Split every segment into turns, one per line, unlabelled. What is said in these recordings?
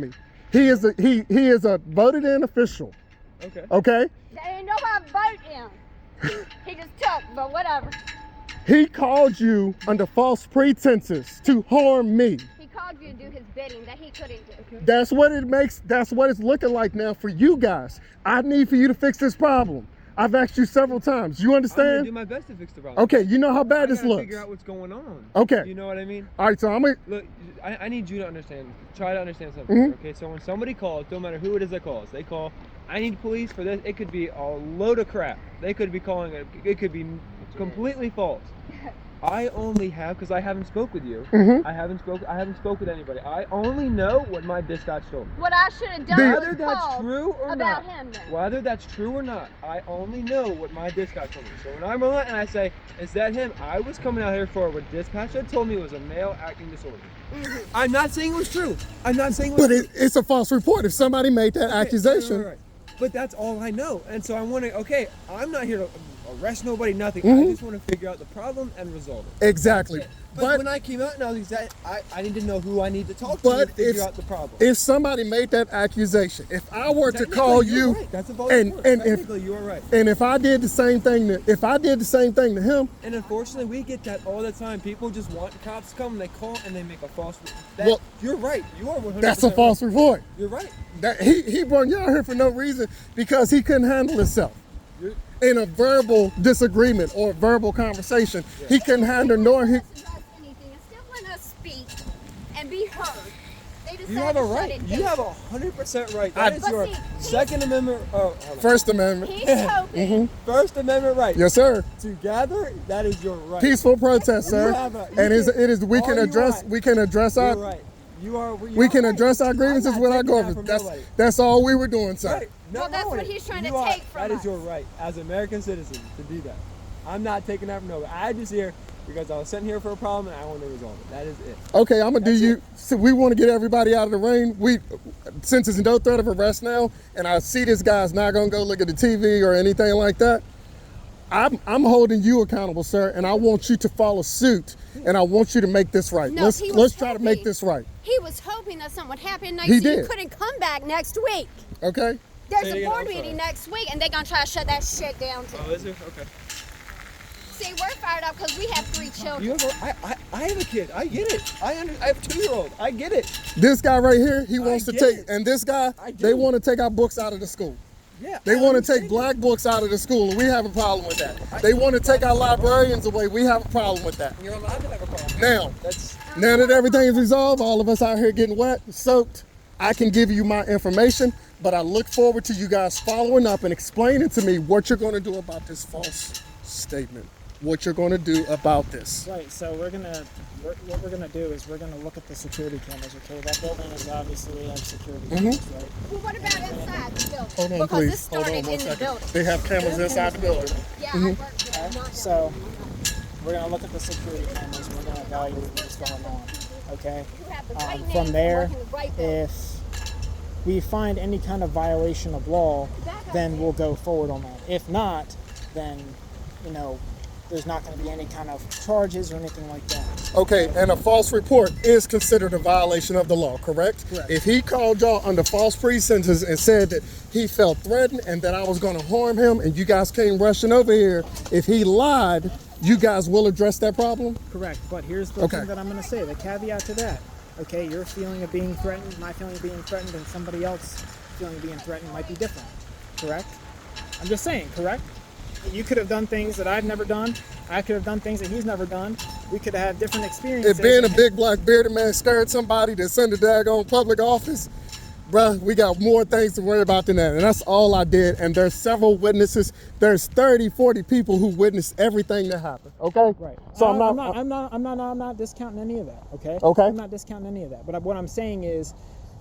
me. He is a he he is a voted in official.
Okay.
Okay,
There ain't nobody vote him. He just took, but whatever.
he called you under false pretenses to harm me.
He called you to do his bidding that he couldn't do.
That's what it makes. That's what it's looking like now for you guys. I need for you to fix this problem. I've asked you several times. You
I'm gonna do
understand?
my best to fix the problem.
Okay, you know how
I
bad
gotta
this looks.
figure out what's going on.
Okay,
You know what I mean?
all right. So I'm gonna.
Look, I, I need you to understand. Try to understand something.
Mhm.
Okay, so when somebody calls, don't matter who it is that calls, they call. I need police for this. It could be a load of crap. They could be calling it. It could be completely false. I only have because I haven't spoke with you.
mhm.
I haven't spoke. I haven't spoke with anybody. I only know what my dispatch told me.
What I should have done
The-
Whether
was
that's
called
true or not.
about him then.
Whether that's true or not, I only know what my dispatch told me. So when I'm on and I say, is that him? I was coming out here for what dispatch had told me was a male acting disorder.
Mhm.
I'm not saying it was true. I'm not saying it was
But it, it's a false report. If somebody made that
Okay,
accusation,
right, right, right. But that's all I know. And so I'm wondering, okay, I'm not here to arrest nobody, nothing.
Mhm.
I just want to figure out the problem and resolve it.
exactly.
But,
But
when I came out and all these, that- I, I need to know who I need to talk to
But
to figure
if-
out the problem.
if somebody made that accusation, if I were to
Technically,
call
you're
you,
right. That's a false
and
report.
and if
technically you are right.
and if I did the same thing to if I did the same thing to him,
And unfortunately, we get that all the time. People just want cops to come, and they call, and they make a false. That,
Well,
you're right. You are 100.
that's a false report.
You're right.
That he he brought y'all here for no reason because he couldn't handle himself.
You're,
In a verbal disagreement or a verbal conversation, he couldn't handle nor he.
Doesn't address anything. It's still when us speak and be heard. They decided
you have a
to shut
right.
it
You
down.
have a 100 percent right.
I-
That is
But
your
see, he's-
Second Amendment. Oh, hold on.
First Amendment. Mm-hmm.
He's hoping.
First Amendment right.
Yes, sir.
To gather, that is your right.
Peaceful protest, sir.
You have a- you
And is
can-
it is we
all
can
you
address
want.
we can address
You're
our
right. You are. you
we
are
can
right.
address our
I'm
grievances
not
with our
taking that
government.
from
That's
nobody.
that's all we were doing, sir.
Right. No,
Well, that's
no,
what
it-
he's trying to
you are-
take from
That is
us.
your right as American citizens to do that. I'm not taking that from nobody. I just here because I was sent here for a problem and I want to resolve it. That is it.
Okay, I'm gonna do
That's
you.
it.
So we want to get everybody out of the rain. We, since there's no threat of arrest now, and I see this guy's not gonna go look at the TV or anything like that. I'm I'm holding you accountable, sir, and I want you to follow suit, and I want you to make this right.
No,
let's
he was
let's try to make
happy.
this right.
He was hoping that something would happen next
He
year. You
did.
couldn't come back next week.
Okay.
There's
Say it
a
again,
board
I'm sorry. Uh,
meeting next week, and they're gonna try to shut that shit down too.
Oh, is there? Okay.
See, we're fired up because we have three children.
You have a, I, I, I have a kid. I get it. I under, I have a two year old. I get it.
This guy right here, he wants to
get
take,
it.
and this guy,
I
they
do.
want to take our books out of the school.
Yeah.
They
I
want to
understand
take
you.
black books out of the school, and we have a problem with that. They want to take our librarians away. We have a problem with that.
You're allowed to have a problem.
Now,
That's
Now that everything's resolved, all of us out here getting wet, soaked, I can give you my information, but I look forward to you guys following up and explaining to me what you're going to do about this false statement. What you're going to do about this.
Right, so we're gonna, we're, what we're gonna do is we're gonna look at the security cameras, okay? That building is obviously have security cameras, right?
Well, what about inside the building?
Hold on,
because
please.
this
Hold
started
on one
in the
second.
building.
They have cameras inside the building.
Yeah, I worked there. not
Okay,
them.
Mm-hmm. so we're gonna look at the security cameras, we're gonna evaluate what's going on, okay?
You have the right
Um,
name,
from
you
there,
work in the right building.
if we find any kind of violation of law, then we'll go forward on that. If not, then, you know, there's not gonna be any kind of charges or anything like that.
Okay, and a false report is considered a violation of the law, correct?
Correct.
If he called y'all under false pretenses and said that he felt threatened and that I was going to harm him and you guys came rushing over here, if he lied, you guys will address that problem?
Correct, but here's the
Okay.
thing that I'm going to say the caveat to that. Okay, your feeling of being threatened, my feeling of being threatened, and somebody else feeling of being threatened might be different. Correct? I'm just saying, correct? You could have done things that I've never done. I could have done things that he's never done. We could have had different experiences.
If being a big black bearded man scared somebody to send a daggone public office, bruh, we got more things to worry about than that. And that's all I did. And there's several witnesses. There's 30, 40 people who witnessed everything that happened. Okay?
Right.
So
I-
I'm not,
I'm not. I'm not. I'm not. I'm not discounting any of that. Okay.
Okay.
I'm not discounting any of that. But what I'm saying is,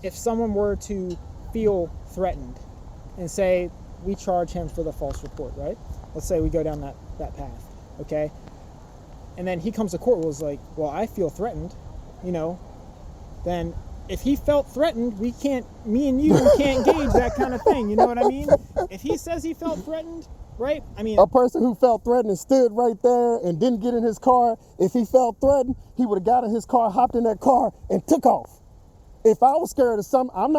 if someone were to feel threatened, and say we charge him for the false report, right? Let's say we go down that that path, okay? And then he comes to court and was like, well, I feel threatened, you know. Then if he felt threatened, we can't. Me and you can't gauge that kind of thing. You know what I mean? If he says he felt threatened, right? I mean,
a person who felt threatened and stood right there and didn't get in his car, if he felt threatened, he would have got in his car, hopped in that car, and took off. If I was scared of something, I'm not.